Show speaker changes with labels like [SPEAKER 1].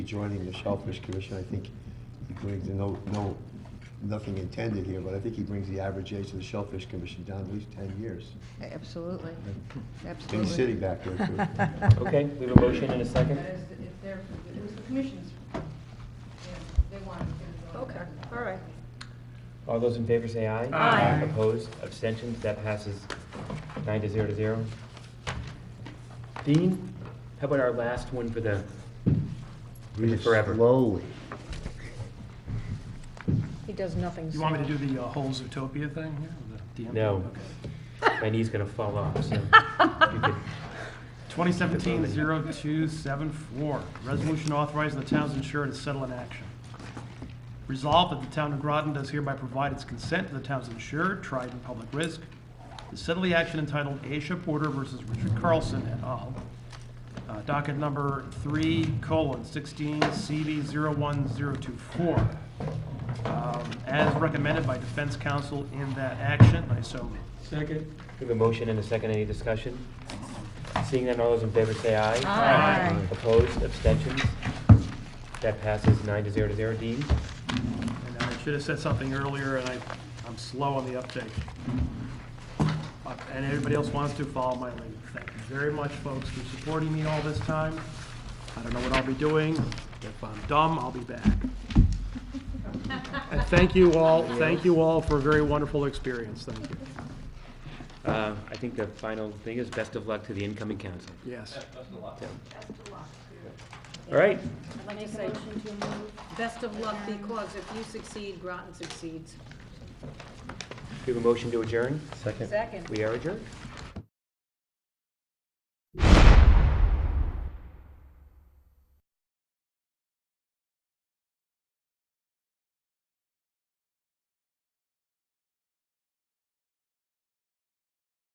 [SPEAKER 1] joining the Shellfish Commission, I think he brings, and no, no, nothing intended here, but I think he brings the average age of the Shellfish Commission down at least ten years.
[SPEAKER 2] Absolutely,
[SPEAKER 1] And
[SPEAKER 2] absolutely.
[SPEAKER 1] he's sitting back there, too.
[SPEAKER 3] Okay, we have a motion and a second.
[SPEAKER 4] That is, if they're, it was the commission's, yeah, they wanted to.
[SPEAKER 2] Okay, all right.
[SPEAKER 3] All those in favor say aye.
[SPEAKER 2] Aye.
[SPEAKER 3] Opposed, abstentions, that passes nine to zero to zero. Dean, how about our last one for the,
[SPEAKER 1] Read it
[SPEAKER 3] Forever.
[SPEAKER 1] Slowly.
[SPEAKER 2] He does nothing.
[SPEAKER 5] You want me to do the uh, whole Zootopia thing here? with the DMP?
[SPEAKER 3] No.
[SPEAKER 5] Okay.
[SPEAKER 3] my knee's gonna fall off, so. you could-
[SPEAKER 5] 2017-0274, resolution authorizing the town's insurer to settle an action. Resolved that the town of Groton does hereby provide its consent to the town's insurer, Triton Public Risk, to settle the action entitled Asia Porter versus Richard Carlson et al., uh, docket number 3 colon 16 CV 01024, um, as recommended by defense counsel in that action. I so move.
[SPEAKER 6] Second.
[SPEAKER 3] We have a motion and a second, any discussion? Seeing none, all those in favor say aye.
[SPEAKER 2] Aye. Aye.
[SPEAKER 3] Opposed, abstentions, that passes nine to zero to zero. Dean?
[SPEAKER 5] And I should have said something earlier, and I, I'm slow on the uptake. Uh, And everybody else wants to follow my lead. Thank you very much, folks, for supporting me all this time. I don't know what I'll be doing. If I'm dumb, I'll be back. And thank you all, thank you all for a very wonderful experience. Thank you.
[SPEAKER 3] Uh, I think the final thing is best of luck to the incoming council.
[SPEAKER 5] Yes.
[SPEAKER 3] All right,
[SPEAKER 4] I'd like to say, best of luck because if you succeed, Groton succeeds.
[SPEAKER 3] we have a motion to adjourn.
[SPEAKER 1] Second.
[SPEAKER 4] Second.
[SPEAKER 3] We are adjourned.